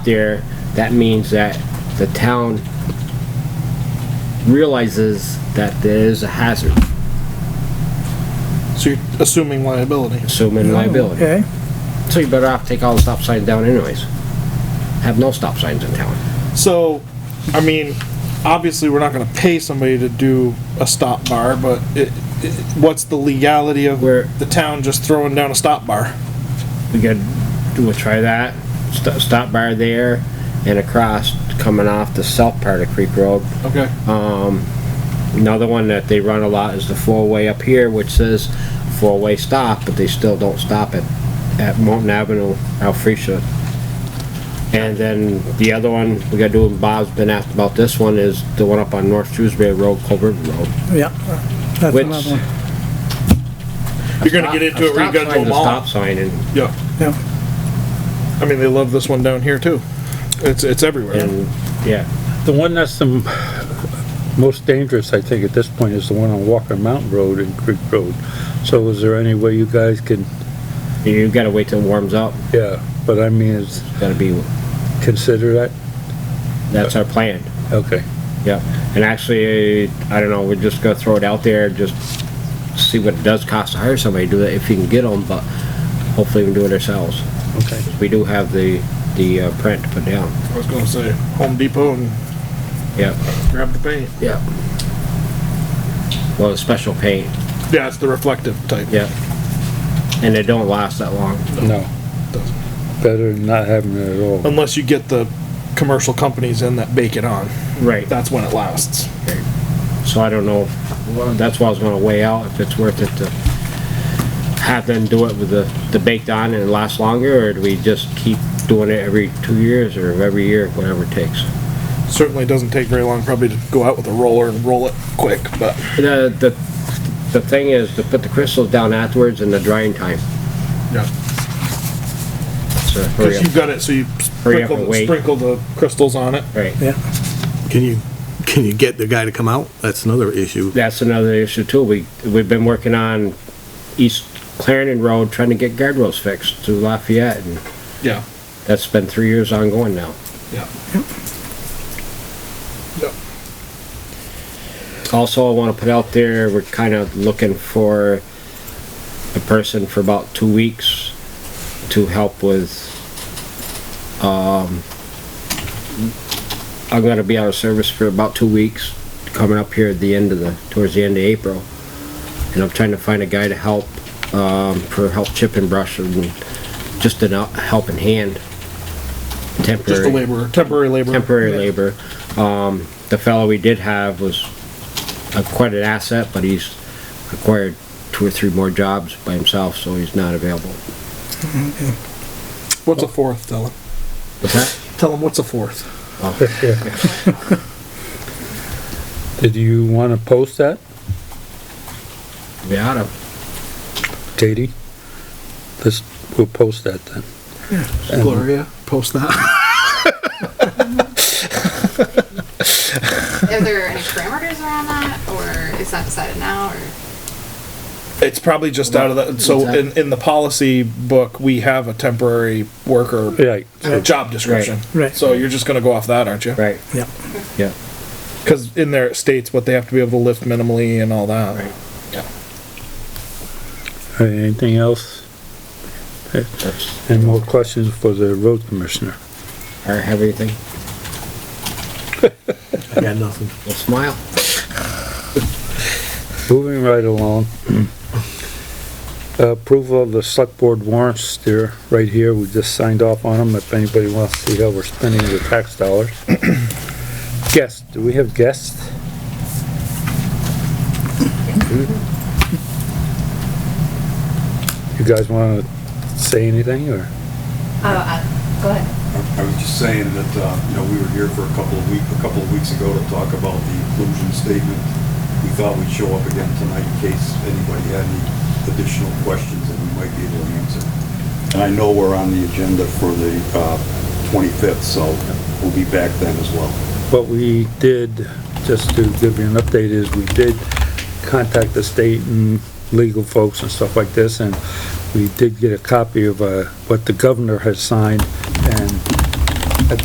there, that means that the town realizes that there is a hazard, So you're assuming liability. assuming liability. Okay, So you better off take all the stop signs down anyways. Have no stop signs in town. So, I mean, obviously, we're not gonna pay somebody to do a stop bar, but it, it, what's the legality of Where- the town just throwing down a stop bar? We could do a try that, stop, stop bar there and across coming off the south part of Creek Road. Okay. Uh, Another one that they run a lot is the four-way up here, which says four-way stop, but they still don't stop it at Mountain Avenue, Alphresia. And then the other one we gotta do, and Bob's been asked about this one, is the one up on North Shrewsbury Road, Culver Road. yeah. That's Which- another one, You're gonna get into it where you gotta do A them all. stop sign and, Yeah, yeah. I mean, they love this one down here too. It's, it's everywhere. and, yeah, The one that's the m- most dangerous, I think, at this point is the one on Walker Mountain Road and Creek Road. So is there any way you guys can, you gotta wait till it warms up, yeah, but I mean, is, gotta be, consider that? that's our plan. Okay. Yeah, and actually, I don't know, we're just gonna throw it out there, just see what it does cost to hire somebody to do it, if you can get them, but hopefully we can do it ourselves. Okay. We do have the, the uh, print to put down. I was gonna say, Home Depot and Yeah, grab the paint. yeah. Well, it's special paint, Yeah, it's the reflective type. yeah. And they don't last that long. No. Better than not having it at all. Unless you get the commercial companies in that bake it on, Right. that's when it lasts. So I don't know, if- well, that's why I was gonna weigh out, if it's worth it to have them do it with the, the baked on and last longer, or do we just keep doing it every two years or every year, whatever it takes? Certainly doesn't take very long probably to go out with a roller and roll it quick, but. The, the, the thing is to put the crystals down afterwards and the drying time, Yeah. so hurry Cause up, you've got it, so you Hurry up and sprinkle, wait. sprinkle the crystals on it. right? Yeah, Can you, can you get the guy to come out? That's another issue. That's another issue too, we, we've been working on East Clarendon Road, trying to get guardrails fixed to Lafayette, and Yeah, that's been three years ongoing now. yeah. Also, I want to put out there, we're kind of looking for a person for about two weeks to help with, um, I'm gonna be out of service for about two weeks, coming up here at the end of the, towards the end of April. And I'm trying to find a guy to help, um, for help chip and brush and just an out- helping hand. Just a Temporary laborer, temporary laborer. temporary labor. Um, the fellow we did have was a- quite an asset, but he's acquired two or three more jobs by himself, so he's not available. What's a fourth, tell him? What's that? Tell him what's a fourth. Oh, Did you wanna post that, We oughta. Katie? Let's, we'll post that then. Um, Gloria, post that. Are there any parameters around that, or is that decided now, or? It's probably just out of the, so What's that? in, in the policy book, we have a temporary worker Right. job description. Right. So you're just gonna go off that, aren't you? Right, yeah. yeah. Cause in there it states what they have to be able to lift minimally and all that. Right. All right, Anything else? That's, Any more questions for the road commissioner? or have anything? I got nothing. Well, smile. Moving right along. Approval of the select board warrants, they're right here, we just signed off on them, if anybody wants to see how we're spending the tax dollars. Guests, do we have guests? You guys wanna say anything, or? go ahead. I was just saying that, uh, you know, we were here for a couple of week, a couple of weeks ago to talk about the inclusion statement. We thought we'd show up again tonight in case anybody had any additional questions that we might be able to answer. And I know we're on the agenda for the uh, 25th, so we'll be back then as well. What we did, just to give you an update, is we did contact the state and legal folks and stuff like this, and we did get a copy of, uh, what the governor has signed, and